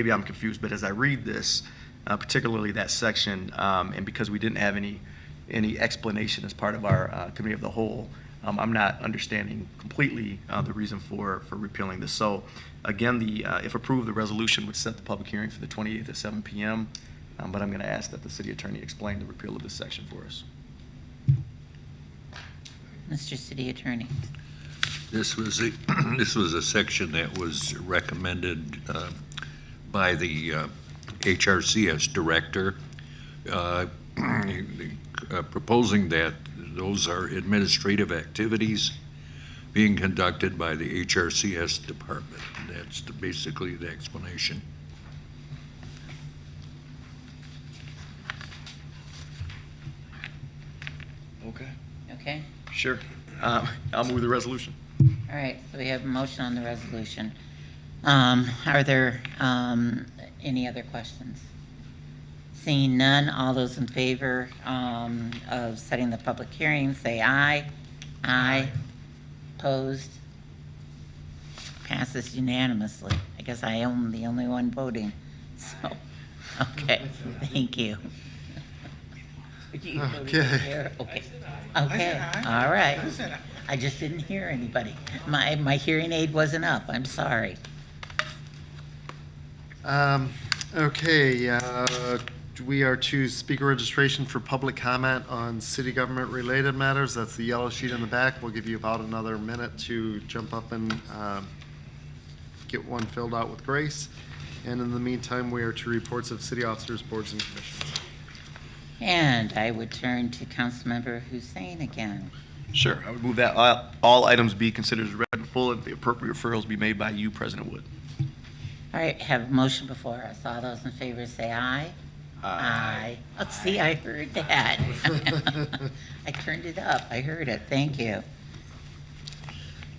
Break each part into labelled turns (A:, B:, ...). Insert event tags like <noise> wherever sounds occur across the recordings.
A: maybe I'm confused, but as I read this, uh, particularly that section, um, and because we didn't have any, any explanation as part of our uh, committee of the whole, um, I'm not understanding completely uh, the reason for, for repealing this. So again, the, uh, if approved, the resolution would set the public hearing for the 28th at 7 PM, um, but I'm going to ask that the city attorney explain the repeal of this section for us.
B: Mr. City Attorney.
C: This was, a- <clears throat> this was a section that was recommended uh, by the uh, HRCS director, uh, <clears throat> uh, proposing that those are administrative activities being conducted by the HRCS department. That's the- basically the explanation.
A: Okay.
B: Okay,
A: Sure. Um, I'll move the resolution.
B: all right, so we have a motion on the resolution. Um, Are there um, any other questions? Seeing none, all those in favor um, of setting the public hearing, say aye. Aye. Opposed? Passes unanimously. I guess I am the only one voting, so, <laughs> okay, thank you. You voted
D: Okay.
B: there, Okay, Okay, all right. I just didn't hear anybody. My, my hearing aid wasn't up, I'm sorry.
D: Um, Okay, uh, we are to speaker registration for public comment on city government-related matters. That's the yellow sheet in the back. We'll give you about another minute to jump up and um, get one filled out with grace. And in the meantime, we are to reports of city officers, boards, and commissions.
B: And I would turn to Councilmember Hussein again.
A: Sure. I would move that all- all items be considered as read in full and the appropriate referrals be made by you, President Wood.
B: All right, have a motion before us. All those in favor say aye. Aye. Oh, see, I heard that. <laughs> I turned it up, I heard it, thank you.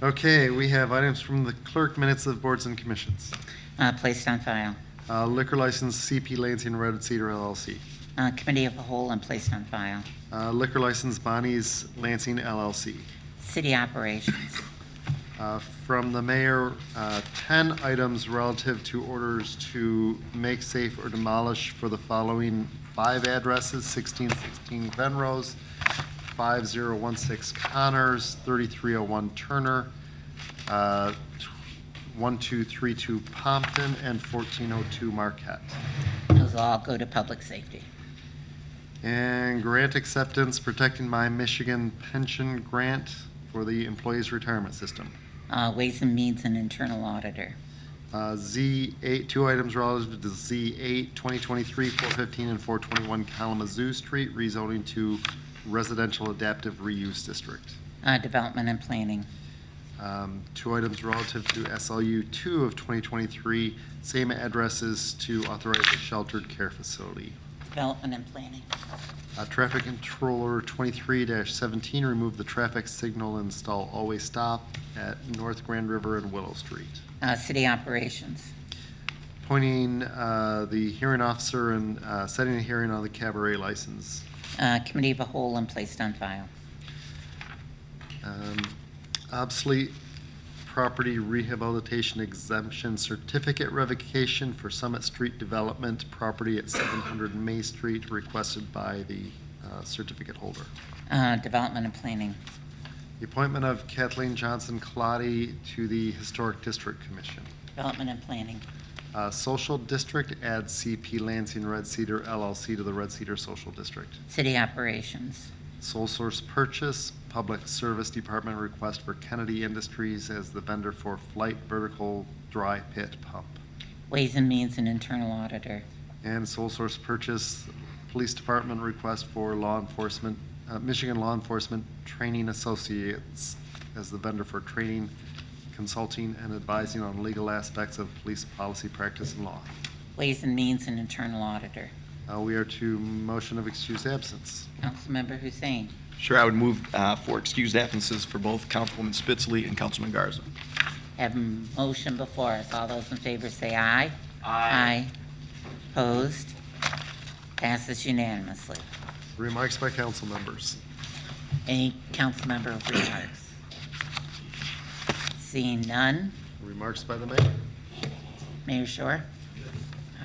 D: Okay, we have items from the clerk minutes of boards and commissions.
B: Uh, Placed on file.
D: Uh, Liquor license CP Lansing Road Cedar LLC.
B: Uh, Committee of the Whole and placed on file.
D: Uh, Liquor license Bonnie's Lansing LLC.
B: City Operations.
D: Uh, From the mayor, uh, 10 items relative to orders to make safe or demolish for the following five addresses, 1616 Venrose, 5016 Connors, 3301 Turner, uh, 1232 Pompton, and 1402 Marquette.
B: Those all go to Public Safety.
D: And grant acceptance, protecting my Michigan pension grant for the employees' retirement system.
B: Uh, Ways and Means and Internal Auditor.
D: Uh, Z8, two items relative to Z8, 2023, 415 and 421 Kalamazoo Street, rezoning to residential adaptive reuse district.
B: Uh, Development and Planning.
D: Um, Two items relative to SLU 2 of 2023, same addresses to authorize a sheltered care facility.
B: Development and Planning.
D: Uh, Traffic Controller 23-17, remove the traffic signal, install always stop at North Grand River and Willow Street.
B: Uh, City Operations.
D: appointing uh, the hearing officer and uh, setting a hearing on the cabaret license.
B: Uh, Committee of the Whole and placed on file.
D: Um, Obsolete property rehabilitation exemption certificate revocation for Summit Street Development property at 700 May Street requested by the uh, certificate holder.
B: Uh, Development and Planning.
D: The appointment of Kathleen Johnson Colati to the Historic District Commission.
B: Development and Planning.
D: Uh, Social District, add CP Lansing Red Cedar LLC to the Red Cedar Social District.
B: City Operations.
D: Sole source purchase, Public Service Department request for Kennedy Industries as the vendor for flight vertical dry pit pump.
B: Ways and Means and Internal Auditor.
D: And sole source purchase, Police Department request for law enforcement, uh, Michigan Law Enforcement Training Associates as the vendor for training, consulting, and advising on legal aspects of police policy, practice, and law.
B: Ways and Means and Internal Auditor.
D: Uh, We are to motion of excused absence.
B: Councilmember Hussein.
A: Sure, I would move uh, for excused absences for both Councilwoman Spitzley and Councilman Garza.
B: Have a motion before us. All those in favor say aye. Aye. Opposed? Passes unanimously.
D: Remarks by council members.
B: Any council member remarks? Seeing none.
D: Remarks by the mayor.
B: Mayor Shore?